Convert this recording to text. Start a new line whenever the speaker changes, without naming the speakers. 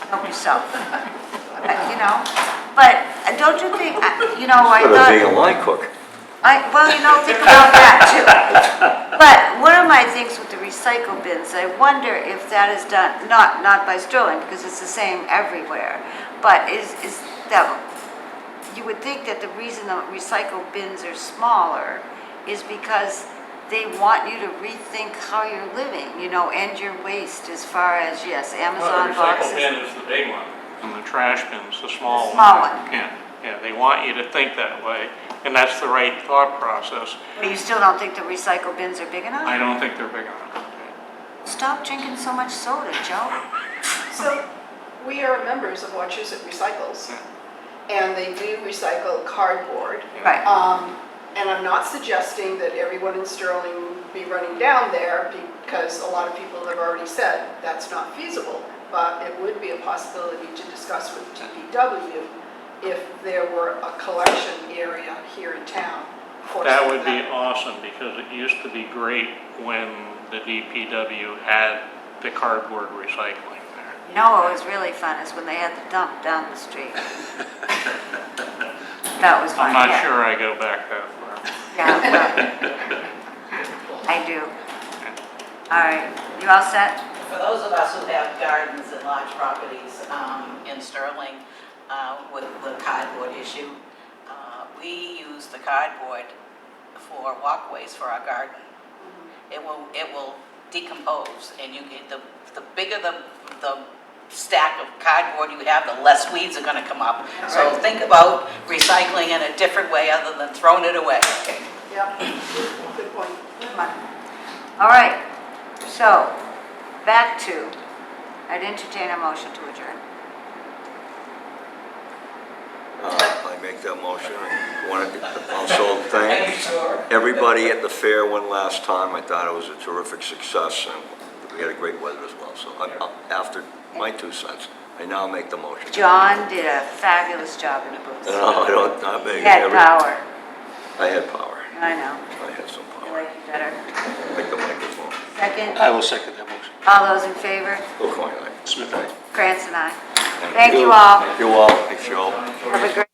help yourself. Uh, You know, but uh, don't you think, uh, you know, I
Better
thought.
being a line cook.
I, well, you know, think about that too. But one of my things with the recycle bins, I wonder if that is done, not, not by Sterling, because it's the same everywhere, but is, is that, you would think that the reason the recycle bins are smaller is because they want you to rethink how you're living, you know, and your waste as far as, yes,
Well,
Amazon
the recycle
boxes.
bin is the big one, and the trash bin's the small one.
Small one.
Yeah, yeah, they want you to think that way, and that's the right thought process.
But you still don't think the recycle bins are big
I
enough?
don't think they're big enough.
Stop drinking so much soda, Joe.
So, we are members of Wachusett Recycles,
Yeah.
and they do recycle cardboard.
Right.
Um, And I'm not suggesting that everyone in Sterling be running down there, because a lot of people have already said that's not feasible, but it would be a possibility to discuss with DPW if there were a collection area here in town. for
That
some
would
of
be awesome, because it used to be great when the DPW had the cardboard recycling there.
You know what was really fun is when they had the dump down the street. That was fun,
I'm not
yeah.
sure I go back that far.
Yeah, well, I do. All right, you all set?
For those of us who have gardens and large properties um, in Sterling uh, with the cardboard issue, uh, we use the cardboard for walkways for our garden. It will, it will decompose, and you get, the, the bigger the, the stack of cardboard you have, the less weeds are gonna come up. So
Right.
think about recycling in a different way other than throwing it away.
Yeah, good point.
All right, so, back to, I'd entertain a motion to adjourn.
Uh, I make that motion. I Want to also thank
sure?
everybody at the fair one last time. I thought it was a terrific success and we had a great weather as well. So I- I- after my two cents, I now make the motion.
John did a fabulous job in the booth.
No, Oh, I don't, I
He
make
had
every, I
power,
had power.
I know,
I had some
I
power.
like you better.
Like the microphone.
Second,
I will second that motion.
all those in favor?
Go coin, I.
Smith, aye.
Krantz and I. Thank you all.
Thank you all. Thanks, you all.
Have a great.